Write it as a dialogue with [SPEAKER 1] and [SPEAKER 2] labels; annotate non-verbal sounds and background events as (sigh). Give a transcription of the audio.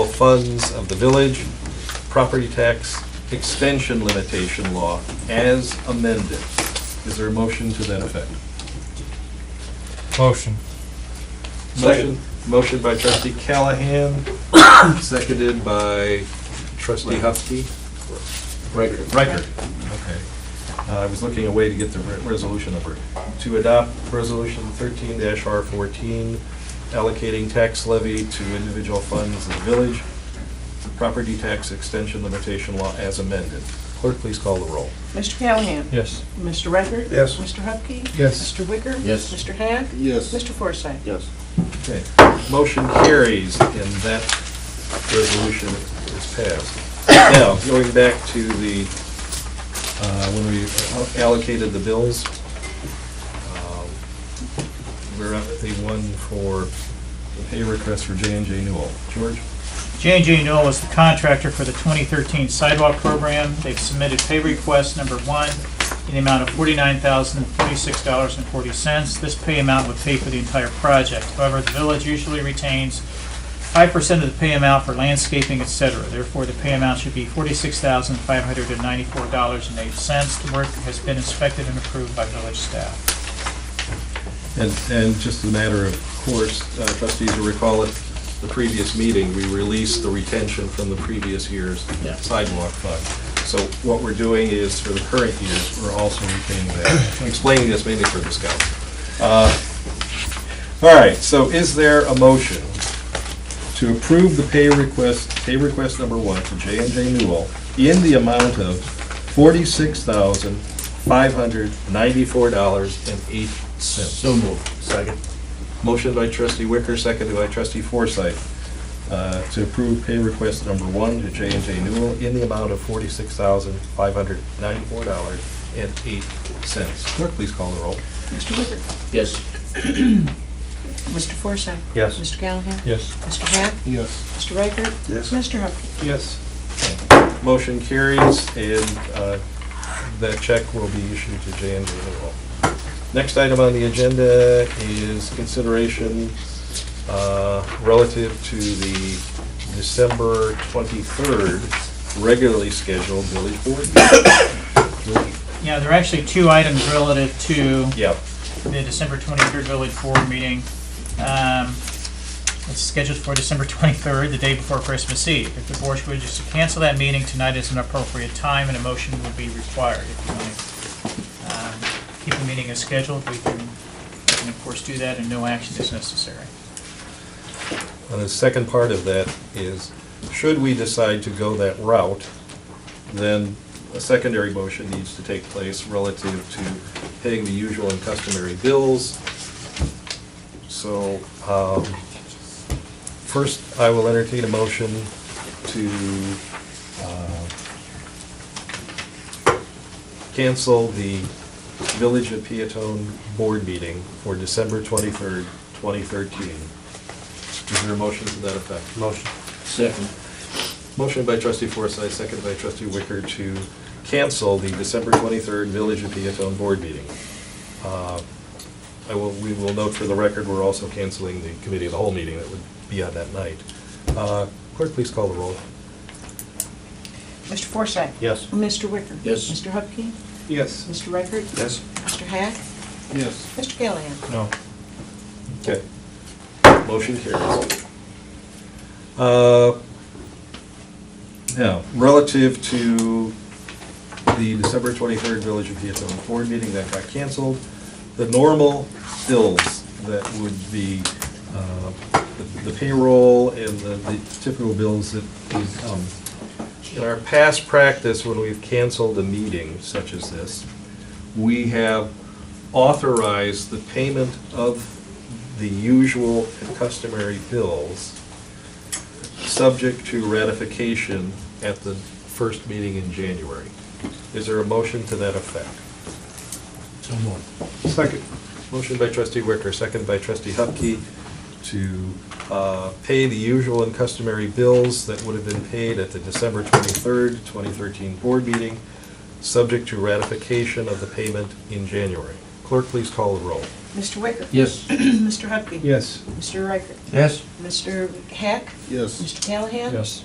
[SPEAKER 1] funds of the village, property tax extension limitation law as amended. Is there a motion to that effect?
[SPEAKER 2] Motion.
[SPEAKER 1] Motion, motion by trustee Callahan, (coughs) seconded by trustee Hupkey. Riker. Riker, okay. Uh, I was looking away to get the re- resolution number. To adopt resolution thirteen R fourteen, allocating tax levy to individual funds of the village, property tax extension limitation law as amended. Clerk, please call the roll.
[SPEAKER 3] Mr. Callahan?
[SPEAKER 2] Yes.
[SPEAKER 3] Mr. Record?
[SPEAKER 4] Yes.
[SPEAKER 3] Mr. Hupkey?
[SPEAKER 2] Yes.
[SPEAKER 3] Mr. Wicker?
[SPEAKER 5] Yes.
[SPEAKER 3] Mr. Hack?
[SPEAKER 4] Yes.
[SPEAKER 3] Mr. Forsythe?
[SPEAKER 5] Yes.
[SPEAKER 1] Okay, motion carries and that resolution is passed. Now, going back to the, uh, when we allocated the bills, um, we're up at the one for the pay request for J and J Newell. George?
[SPEAKER 6] j and J Noel is the contractor for the 2013 sidewalk program. They've submitted pay request number one in the amount of $49,046.40. This pay amount would pay for the entire project. However, the village usually retains 5% of the pay amount for landscaping, et cetera. Therefore, the pay amount should be $46,594.08. The work has been inspected and approved by village staff.
[SPEAKER 1] And, and just a matter of course, uh, trustees will recall at the previous meeting, we released the retention from the previous year's
[SPEAKER 5] Yeah.
[SPEAKER 1] sidewalk fund. So what we're doing is, for the current years, we're also retaining that. I'm Explaining this mainly for the scouts. Uh, All right, so is there a motion to approve the pay request, pay request number one for J and J Newell in the amount of forty-six thousand, five hundred, ninety-four dollars and eight cents?
[SPEAKER 5] So moved. Second.
[SPEAKER 1] Motion by trustee Wicker, seconded by trustee Forsythe, uh, to approve pay request number one to J and J Newell in the amount of forty-six thousand, five hundred ninety-four dollars and eight cents. Clerk, please call the roll.
[SPEAKER 3] Mr. Wicker?
[SPEAKER 5] Yes.
[SPEAKER 3] Mr. Forsythe?
[SPEAKER 5] Yes.
[SPEAKER 3] Mr. Callahan?
[SPEAKER 2] Yes.
[SPEAKER 3] Mr. Hack?
[SPEAKER 4] Yes.
[SPEAKER 3] Mr. Riker?
[SPEAKER 4] Yes.
[SPEAKER 3] Mr. Hupkey?
[SPEAKER 2] Yes.
[SPEAKER 1] Motion carries, and uh, that check will be issued to J and J Newell. Next item on the agenda is consideration uh, relative to the December 23rd regularly scheduled village board. meeting.
[SPEAKER 6] Yeah, there are actually two items relative to
[SPEAKER 1] Yep,
[SPEAKER 6] the December 23rd Village Board meeting. Um, It's scheduled for December 23rd, the day before Christmas Eve. If the board should wish to cancel that meeting, tonight is an appropriate time, and a motion would be required. If you want to um, keep the meeting as scheduled, we can, we can of course do that, and no action is necessary.
[SPEAKER 1] and the second part of that is, should we decide to go that route, then a secondary motion needs to take place relative to paying the usual and customary bills. So, um, first, I will entertain a motion to uh, cancel the Village of Peatone Board meeting for December 23rd, 2013. Is there a motion to that effect?
[SPEAKER 4] Motion.
[SPEAKER 5] Second.
[SPEAKER 1] Motion by trustee Forsythe, second by trustee Wicker to cancel the December 23rd Village of Peatone Board meeting. Uh, I will, we will note for the record, we're also canceling the committee of the whole meeting that would be on that night. Uh, Clerk, please call the roll.
[SPEAKER 3] Mr. Forsythe?
[SPEAKER 4] Yes.
[SPEAKER 3] Mr. Wicker?
[SPEAKER 5] Yes.
[SPEAKER 3] Mr. Hupkey?
[SPEAKER 2] Yes.
[SPEAKER 3] Mr. Record?
[SPEAKER 4] Yes.
[SPEAKER 3] Mr. Hack?
[SPEAKER 4] Yes.
[SPEAKER 3] Mr. Callahan?
[SPEAKER 2] No.
[SPEAKER 1] Okay. Motion carries. Uh, Now, relative to the December 23rd Village of Piattone Board meeting that got canceled, the normal bills that would be uh, the- the payroll and the the typical bills that would come. In our past practice, when we've canceled a meeting such as this, we have authorize the payment of the usual and customary bills, subject to ratification at the first meeting in January. Is there a motion to that effect?
[SPEAKER 5] So moved.
[SPEAKER 4] Second.
[SPEAKER 1] Motion by trustee Wicker, second by trustee Hupkey, to uh, pay the usual and customary bills that would have been paid at the December 23rd, 2013 board meeting, subject to ratification of the payment in January. Clerk, please call the roll.
[SPEAKER 3] Mr. Wicker? (clears throat)
[SPEAKER 5] Yes.
[SPEAKER 3] Mr. Hupkey?
[SPEAKER 2] Yes.
[SPEAKER 3] Mr. Riker?
[SPEAKER 5] Yes.
[SPEAKER 3] Mr. Hack?
[SPEAKER 1] Yes.
[SPEAKER 3] Mr. Callahan?
[SPEAKER 2] Yes.